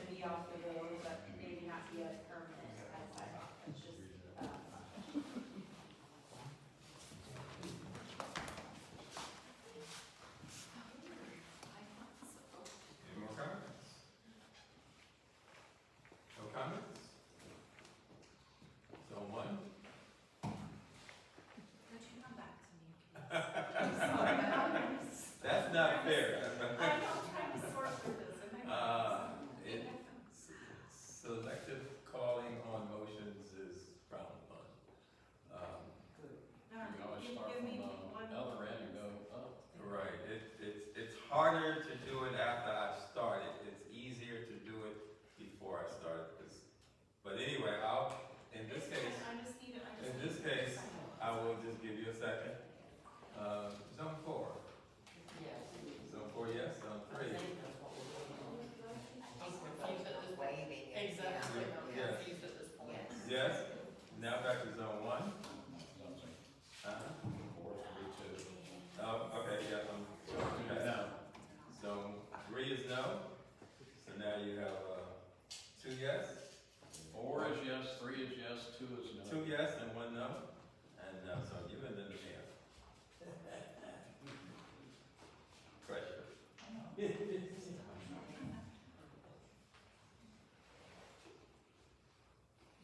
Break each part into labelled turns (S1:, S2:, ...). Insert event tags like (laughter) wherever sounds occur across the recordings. S1: possible, but maybe not be as permanent as I thought, it's just, um.
S2: Any more comments? No comments? So one,
S1: Could you come back to me, please?
S2: that's not fair.
S1: I'm sorry, I'm trying to sort through this in my
S2: Uh,
S1: mind.
S2: it- s- Selective calling on motions is frowned upon. Um,
S1: All right,
S3: You always
S1: give-
S3: start
S1: give
S3: from
S1: me one-
S3: the other end and go up.
S2: Right, it, it's, it's harder to do it after I've started, it's easier to do it before I started, 'cause- but anyway, I'll, in this case,
S1: I just need, I just.
S2: in
S1: need-
S2: this case, I will just give you a second. Um, zone four, zone four, yes, zone three.
S4: Exactly,
S2: Yeah.
S4: I'm confused at this point.
S2: Yes, now back to zone one.
S3: Something.
S2: Uh-huh.
S3: Four, three, two.
S2: Oh, okay, yeah, um, okay.
S3: No.
S2: So three is no, so now you have, uh, two yes,
S3: Four is yes, three is yes, two is no.
S2: two yes and one no, and, uh, so you and then the mayor. (laughs) Pressure.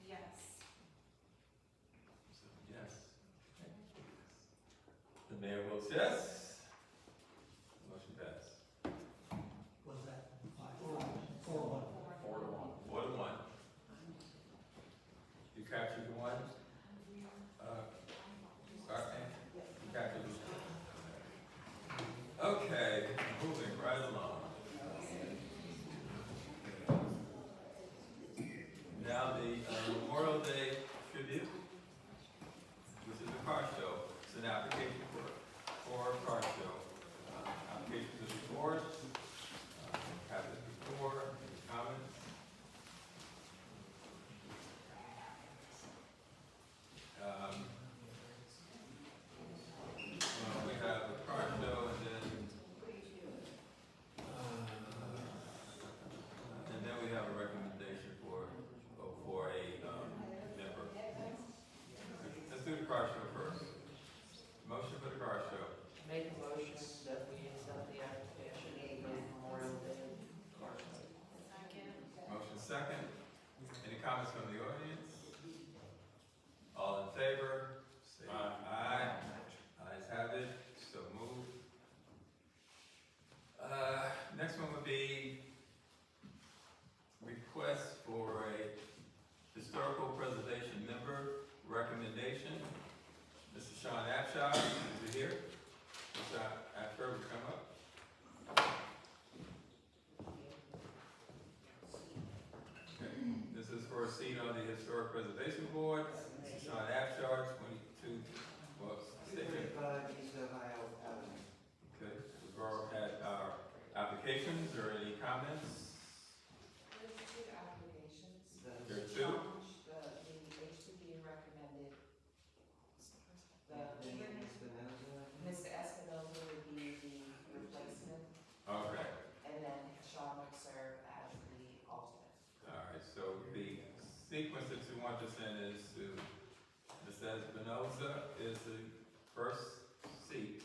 S1: Yes.
S2: So, Yes. The mayor votes yes. Motion passed.
S5: Was that five, four, one?
S3: Four to one.
S2: Four to one. You captured the one? Uh, Clark, you captured the- Okay, moving right along. Now the uh, Memorial Day tribute, which is a car show, it's an application for, for a car show. Uh, Application to the board, uh, have this before, any comments? Um, well, we have a car show and then. Uh, And then we have a recommendation for, oh, for a, um, member. Let's do the car show first. Motion for the car show.
S4: Make a motion that we accept the application of the Memorial Day Garden.
S1: Second.
S2: Motion second. Any comments from the audience? All in favor? Say Aye. Ayes have it, so moved. Uh, next one would be request for a historical preservation member recommendation. Mr. Sean Abshire, is he here? Mr. Abshire, would you come up? This is for a seat on the Historic Preservation Board. Mr. Sean Abshire, twenty-two, well, six. Okay, the borough had our applications or any comments?
S4: There's two applications.
S2: There are two.
S4: The, the HDB recommended, the, Mr. Espinoza would be the replacement,
S2: Okay,
S4: and then Sean would serve as the alternate.
S2: all right, so the sequence that you want us in is to, Mr. Espinoza is the first seat,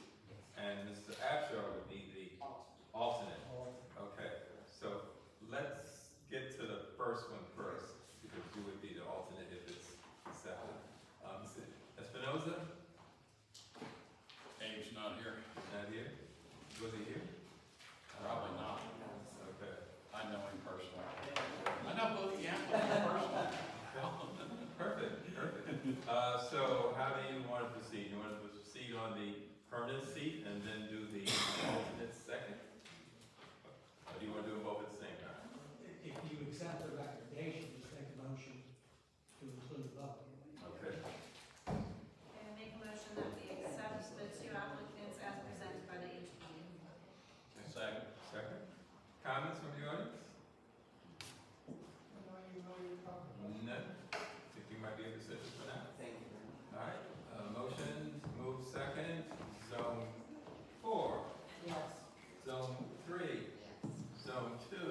S2: and Mr. Abshire would be the
S4: Alternate.
S2: alternate. Okay, so let's get to the first one first, because you would be the alternate if it's accepted. Um, Mr. Espinoza,
S3: Abe's not here.
S2: not here? Was he here?
S3: Probably not.
S2: Okay.
S3: I know him personally. I know both the applicants personally.
S2: Perfect, perfect. Uh, so how do you want to proceed? You want to proceed on the permanent seat and then do the alternate second? Or do you want to do them both at the same time?
S5: If you accept the recommendation, just make a motion to include both.
S2: Okay,
S1: And make a motion that we accept the two applicants as presented by the HPU.
S3: Second.
S2: second. Comments from the audience? uh,